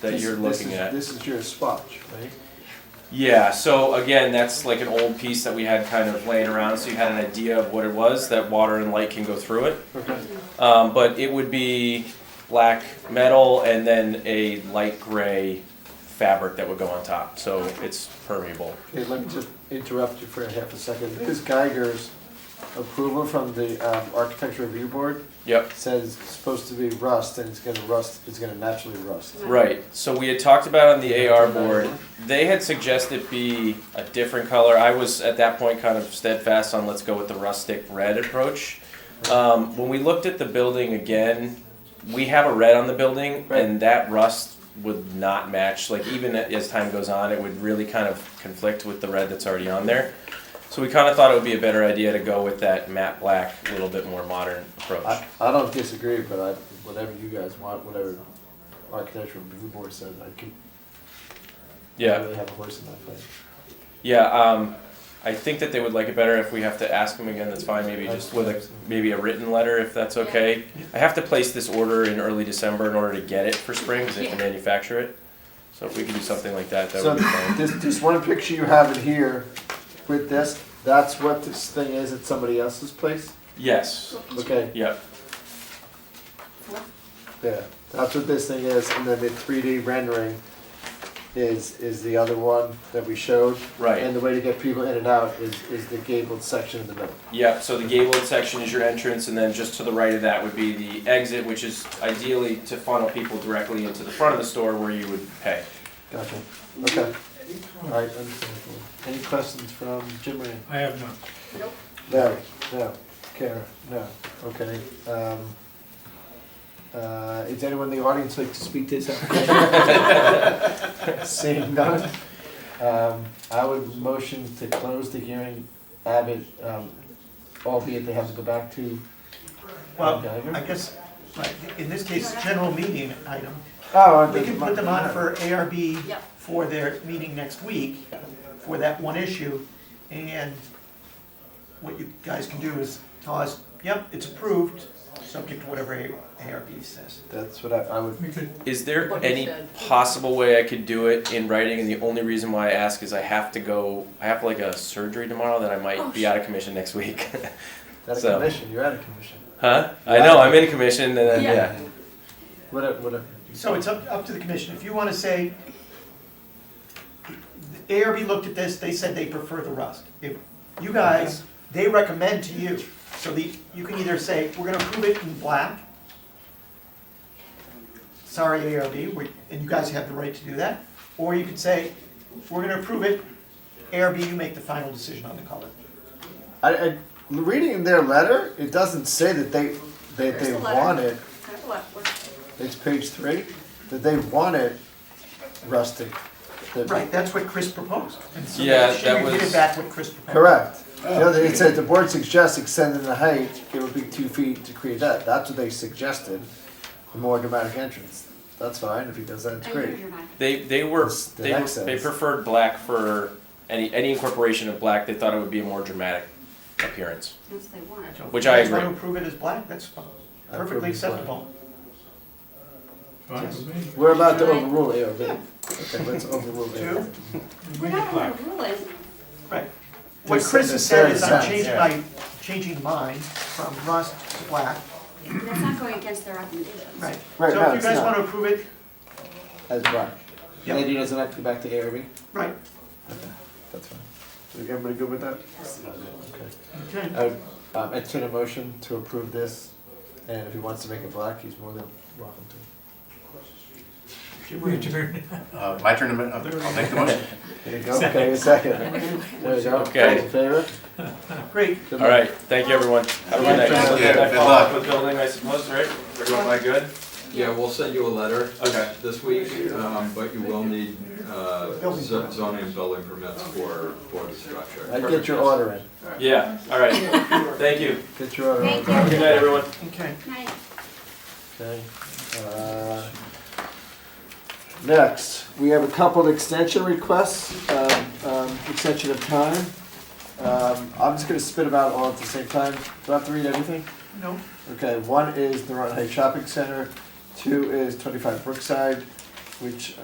that This- you're this looking is- at. This is your spot, right? Yeah, so again, that's like an old piece that we had kind of laying around, so you had an idea of what it was, that water and light can go through it. Um, but it would be black metal and then a light gray fabric that would go on top, so it's permeable. Okay, let me just interrupt you for a half a second. Ms. Geiger's approval from the um, Architecture Review Board Yep, says it's supposed to be rust, and it's gonna rust, it's gonna naturally rust. right, so we had talked about on the AR board, they had suggested be a different color, I was at that point kind of steadfast on let's go with the rustic red approach. Um, when we looked at the building again, we have a red on the building, Right. and that rust would not match. Like even as time goes on, it would really kind of conflict with the red that's already on there. So we kind of thought it would be a better idea to go with that matte black, a little bit more modern approach. I, I don't disagree, but I, whatever you guys want, whatever Architecture Review Board says, I can, I yeah, really have a horse in that fight. yeah. Um, I think that they would like it better if we have to ask them again. That's fine. Maybe just with a maybe a written letter if that's okay. I have to place this order in early December in order to get it for spring because they can manufacture it. So if we could do something like that, that So would be fine. this, this one picture you have in here with this, that's what this thing is at somebody else's place? Yes. Okay, Yep. yeah, that's what this thing is, and then the three D rendering is, is the other one that we showed. Right. And the way to get people in and out is, is the gabled section in the middle. Yep. So the gabled section is your entrance, and then just to the right of that would be the exit, which is ideally to funnel people directly into the front of the store where you would pay. Gotcha, okay. All right, understandable. Any questions from Jim Moran? I have none. No, no, Kara, no, okay. Um, uh, Is anyone in the audience like to speak to this application? Seeing none, um, I would motion to close the hearing, Abbott, um, albeit they have to go back to Well, Geiger. I guess, right, in this case, general meeting item, Oh, I we can think- put them on for ARB Yeah. for their meeting next week, for that one issue, and what you guys can do is tell us, yep, it's approved, subject to whatever ARB says. That's what I, I would, We could, Is there What you any said. possible way I could do it in writing? And the only reason why I ask is I have to go. I have like a surgery tomorrow that I might Oh, be out of commission next week. that's a So- commission, you're out of commission. huh? I know. I'm in commission, and then Yeah. yeah. Whatever, whatever. So it's up, up to the commission, if you wanna say, the ARB looked at this, they said they prefer the rust. If you guys, they recommend to you, so the, you can either say, we're gonna approve it in black. Sorry, ARB, we, and you guys have the right to do that, or you could say, we're gonna approve it, ARB, you make the final decision on the color. I, I, reading their letter, it doesn't say that they, that There's they the letter. want it. That's a lot of work. It's page three, that they want it rustic. That- Right, that's what Chris proposed. And so Yeah, she that was- repeated back what Chris proposed. Correct. The other, it said the board suggests extending the height, it would be two feet to create that, that's what they suggested, a more dramatic entrance. That's fine, if he does that, it's I hear great. your mind. They they were It's the they, accents. they preferred black for any any incorporation of black. They thought it would be a more dramatic appearance. That's what they want. So if Which you I guys wanna agree. approve it as black, that's fine. I perfectly approve it as black. acceptable. fine with me. We're about to Alright. overrule ARB. Okay, let's overrule ARB. Two? We're not overruling. Right. What Just Chris in has the said third is I'm sense, changing yeah. my, changing mine from rust to black. That's not going against their recommendations. Right. Right, no, So if you it's guys not. want to approve it, As black. And then Yep. he doesn't have to go back to ARB? right. That's fine. Is everybody good with that? Okay. Okay. I would um, entertain a motion to approve this, and if he wants to make it black, he's more than welcome to. Your turn. Uh, My turn, to ma- I'll I'll make the motion. There you go, okay, a second. There you go. Okay. All in favor? Great. Good All right, thank you, everyone. Have a good night. Thank So you. then I Good follow up luck. with building, I suppose, right? Everyone, am I good? Yeah, we'll send you a letter uh, Okay. this week, um, but you will need uh, zo- zoning and building permits for, for the structure. luck. I get your order in. Yeah, all right. Thank you. Get your order in. Thank you. Good night, everyone. Okay. Night. Okay. uh, Next, we have a couple of extension requests, um, um, extension of time. Um, I'm just gonna spit them out all at the same time. Do I have to read everything? No. Okay, one is the Rutland Heights Shopping Center, two is twenty-five Brookside, which